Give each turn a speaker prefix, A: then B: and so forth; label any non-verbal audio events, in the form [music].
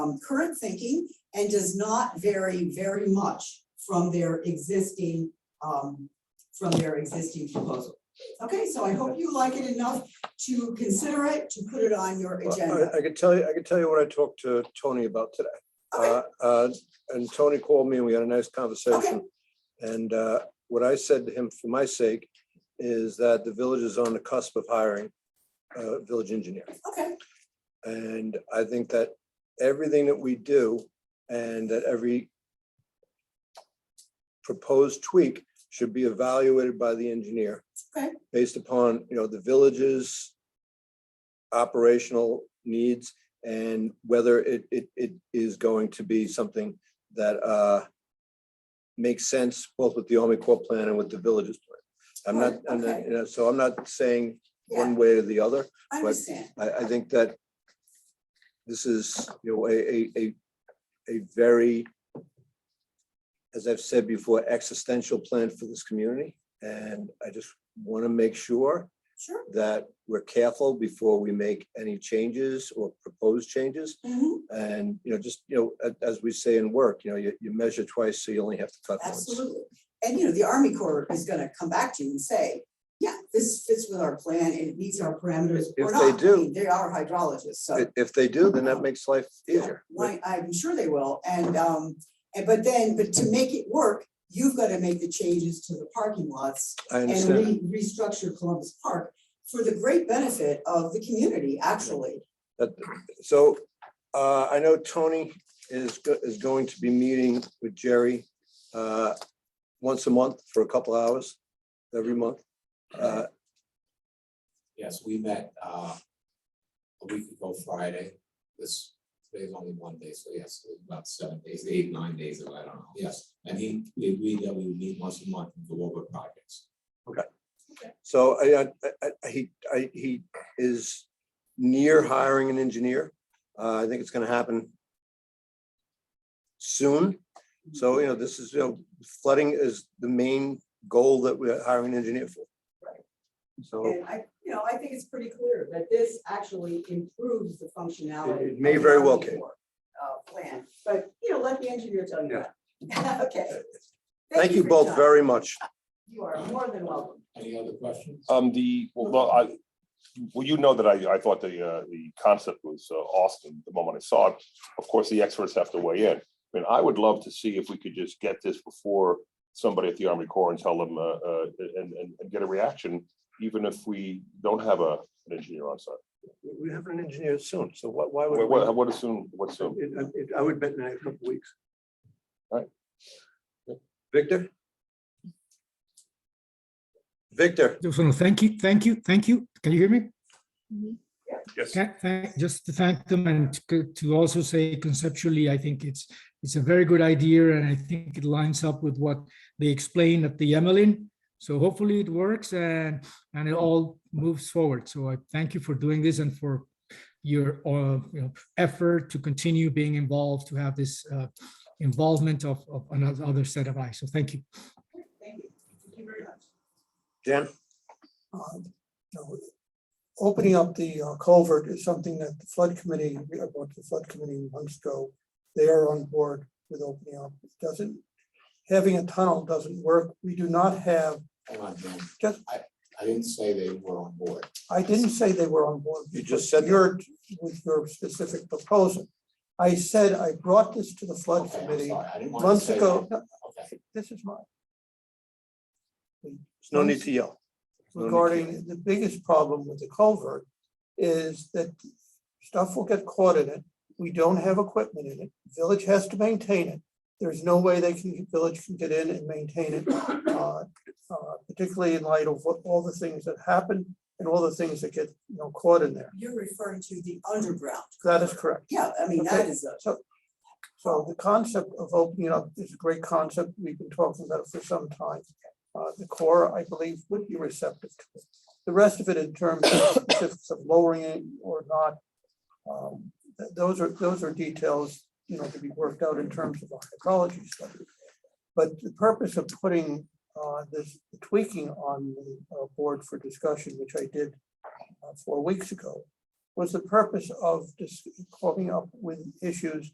A: um, current thinking and does not vary very much from their existing, um, from their existing proposal. Okay, so I hope you like it enough to consider it, to put it on your
B: Well,
A: agenda.
B: I I could tell you, I could tell you what I talked to Tony about today.
A: Okay,
B: Uh, uh, And Tony called me and we had a nice conversation. And uh, what I said to him for my sake is that the village is on the cusp of hiring a village engineer.
A: okay,
B: And I think that everything that we do and that every proposed tweak should be evaluated by the engineer.
A: Okay.
B: Based upon, you know, the village's operational needs and whether it, it, it is going to be something that uh makes sense both with the Army Corps plan and with the village's plan. I'm not, I'm not,
A: Okay.
B: you know, so I'm not saying
A: yeah,
B: one way or the other.
A: I understand.
B: I, I think that this is, you know, a, a, a, a very, as I've said before, existential plan for this community. And I just want to make sure
A: Sure.
B: that we're careful before we make any changes or proposed changes.
A: Mhm,
B: And, you know, just, you know, a- as we say in work, you know, you, you measure twice, so you only have to cut once.
A: Absolutely. And you know, the Army Corps is gonna come back to you and say, yeah, this fits with our plan and it meets our parameters
B: If
A: or
B: they
A: not. I
B: do.
A: mean, They are hydrologists, so.
B: If- If they do, then that makes life
A: Yeah,
B: easier.
A: Right, I'm sure they will, and, um, and but then, but to make it work, you've gotta make the changes to the parking lots
B: I
A: and
B: understand.
A: re- restructure Columbus Park for the great benefit of the community, actually.
B: So uh, I know Tony is, go- is going to be meeting with Jerry uh, once a month for a couple hours, every month. Uh,
C: Yes, we met uh a week ago Friday. This today's only one day, so yes, it was about seven days, eight, nine days ago, I don't know, yes. And he, we agreed that we would meet once a month and go over projects.
B: So I, I- I- I- he, I- he is near hiring an engineer. Uh, I think it's going to happen soon. So, you know, this is, you know, flooding is the main goal that we're hiring an engineer for. So
A: And I, you know, I think it's pretty clear that this actually improves the functionality.
B: It- it may
A: of the
B: very well,
A: Army
B: Kate.
A: Corps, Uh, plan, but, you know, let the engineer tell you that. [laughs] Okay.
B: thank you
A: for your
B: both
A: time.
B: very much.
A: You are more than welcome.
C: Any other questions?
D: Uh,
E: Um, the, well, no, I, well, you know that I, I thought the, uh, the concept was uh, awesome the moment I saw it. Of course, the experts have to weigh in. And I would love to see if we could just get this before somebody at the Army Corps and tell them, uh, uh, and, and, and get a reaction, even if we don't have a, an engineer on site.
B: We have an engineer soon, so what, why
E: What,
B: would?
E: what, what assume, what assume?
B: we- it- it- I would bet in the next couple of weeks.
E: Alright.
B: Victor? Victor,
F: Just want to thank you, thank you, thank you. Can you hear me?
E: Yes.
F: Tha- thank- Just to thank them and to- to also say conceptually, I think it's, it's a very good idea and I think it lines up with what they explained at the Emmeline. So hopefully it works and, and it all moves forward. So I thank you for doing this and for your, uh, you know, effort to continue being involved, to have this uh, involvement of, of another other set of eyes. So thank you.
A: Thank you. Thank you very much.
B: Jen,
D: uh, you know, Opening up the uh, culvert is something that the flood committee, we I brought to the flood committee months ago. They are on board with opening up. It doesn't, having a tunnel doesn't work. We do not have,
C: Hold on, John.
D: Just-
C: I I didn't say they were on board.
D: I didn't say they were on board.
B: You just said that.
D: Your, with your specific proposal. I said I brought this to the flood
C: Okay, I'm
D: committee
C: sorry, I didn't want to
D: months
C: say
D: ago.
C: that. Okay,
D: This is mine.
B: there's no need to yell. No need to yell.
D: regarding the biggest problem with the culvert is that stuff will get caught in it. We don't have equipment in it. Village has to maintain it. There's no way they can, village can get in and maintain it. uh, uh, Particularly in light of what, all the things that happen and all the things that get, you know, caught in there.
A: You're referring to the underground.
D: That is correct.
A: Yeah, I mean, that is a,
D: So the concept of opening it up is a great concept. We've been talking about it for some time. Uh, the core, I believe, would be receptive to it. The rest of it in terms of specifics of lowering it or not. um, th- those are, those are details, you know, to be worked out in terms of a hydrology study. But the purpose of putting, uh, this tweaking on the uh, board for discussion, which I did uh, four weeks ago, was the purpose of just coming up with issues